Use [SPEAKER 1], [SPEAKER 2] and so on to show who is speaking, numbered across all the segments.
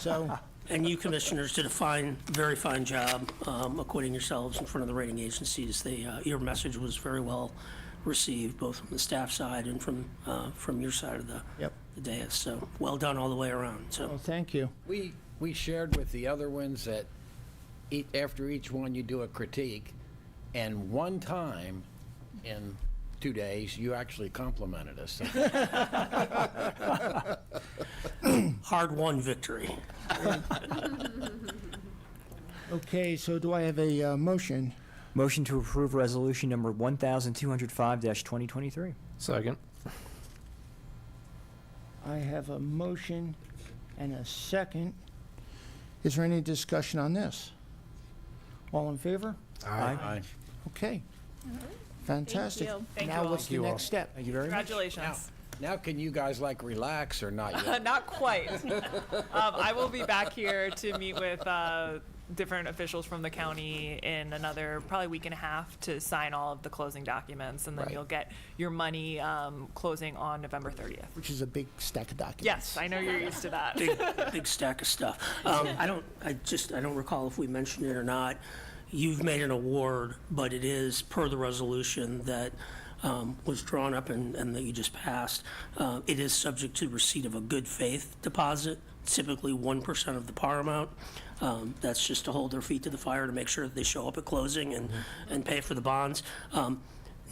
[SPEAKER 1] So,
[SPEAKER 2] And you commissioners did a fine, very fine job um, acquitting yourselves in front of the rating agencies. They, uh, your message was very well received, both from the staff side and from, uh, from your side of the
[SPEAKER 1] Yep.
[SPEAKER 2] the dais. So, well done all the way around, so.
[SPEAKER 1] well, thank you.
[SPEAKER 3] We, we shared with the other ones that each, after each one, you do a critique, and one time in two days, you actually complimented us.
[SPEAKER 2] Hard-won victory.
[SPEAKER 1] Okay, so do I have a uh, motion?
[SPEAKER 4] Motion to approve resolution number 1205-2023.
[SPEAKER 5] Second.
[SPEAKER 1] I have a motion and a second. Is there any discussion on this? All in favor?
[SPEAKER 4] Aye.
[SPEAKER 1] Okay. Fantastic.
[SPEAKER 6] you. Thank you
[SPEAKER 1] Now
[SPEAKER 6] all.
[SPEAKER 1] what's the
[SPEAKER 5] you all.
[SPEAKER 1] next step?
[SPEAKER 4] Thank you very much.
[SPEAKER 3] Now,
[SPEAKER 6] Congratulations.
[SPEAKER 3] now can you guys like relax or not yet?
[SPEAKER 6] Not quite. Um, I will be back here to meet with, uh, different officials from the county in another probably week and a half to sign all of the closing documents. And then
[SPEAKER 1] Right.
[SPEAKER 6] you'll get your money, um, closing on November thirtieth.
[SPEAKER 1] Which is a big stack of documents.
[SPEAKER 6] Yes, I know you're used to that.
[SPEAKER 2] Big, big stack of stuff. Um, I don't, I just, I don't recall if we mentioned it or not. You've made an award, but it is per the resolution that um, was drawn up and, and that you just passed. Uh, It is subject to receipt of a good faith deposit, typically 1% of the par amount. Um, That's just to hold their feet to the fire to make sure that they show up at closing and, and pay for the bonds. Um,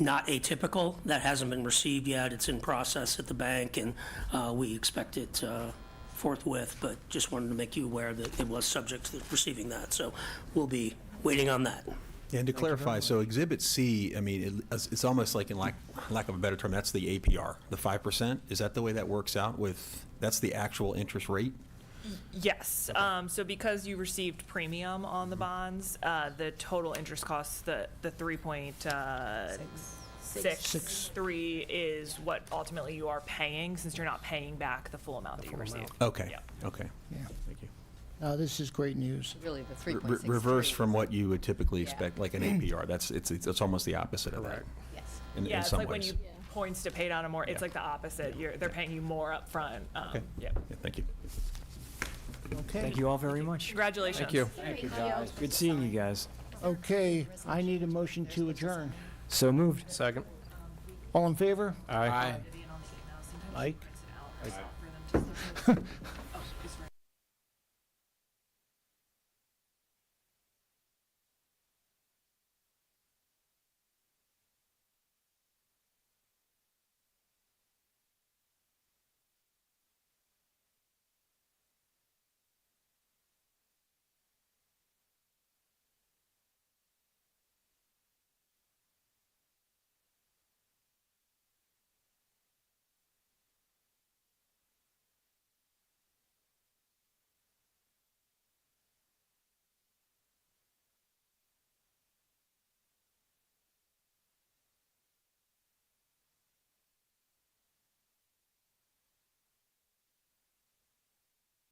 [SPEAKER 2] Not atypical, that hasn't been received yet, it's in process at the bank, and uh, we expect it uh, forthwith, but just wanted to make you aware that it was subject to receiving that, so we'll be waiting on that.
[SPEAKER 7] And to clarify, so Exhibit C, I mean, it- it's almost like, in lack, lack of a better term, that's the APR, the 5%? Is that the way that works out with, that's the actual interest rate?
[SPEAKER 6] Yes, um, so because you received premium on the bonds, uh, the total interest costs, the, the three point, uh, six, three is what ultimately you are paying, since you're not paying back the full amount that you received.
[SPEAKER 7] Okay,
[SPEAKER 6] Yeah.
[SPEAKER 7] okay.
[SPEAKER 1] Yeah.
[SPEAKER 7] Thank you.
[SPEAKER 1] Now, this is great news.
[SPEAKER 8] Really, the
[SPEAKER 7] Re-
[SPEAKER 8] 3.63.
[SPEAKER 7] Reverse from what you would typically
[SPEAKER 8] Yeah.
[SPEAKER 7] expect, like an APR, that's, it's, it's it's almost the opposite of that.
[SPEAKER 8] Yes.
[SPEAKER 7] in-
[SPEAKER 6] Yeah,
[SPEAKER 7] in
[SPEAKER 6] it's
[SPEAKER 7] some
[SPEAKER 6] like when
[SPEAKER 7] ways.
[SPEAKER 6] you points to pay down a more, it's
[SPEAKER 7] Yeah.
[SPEAKER 6] like the opposite, you're, they're paying you more upfront, um,
[SPEAKER 7] Okay.
[SPEAKER 6] yeah.
[SPEAKER 7] Yeah, Thank you.
[SPEAKER 1] Okay.
[SPEAKER 4] Thank you all very much.
[SPEAKER 6] Congratulations.
[SPEAKER 5] Thank you.
[SPEAKER 4] Good seeing you guys.
[SPEAKER 1] Okay, I need a motion to adjourn.
[SPEAKER 4] So moved.
[SPEAKER 5] Second.
[SPEAKER 1] All in favor?
[SPEAKER 5] Aye.
[SPEAKER 1] Mike?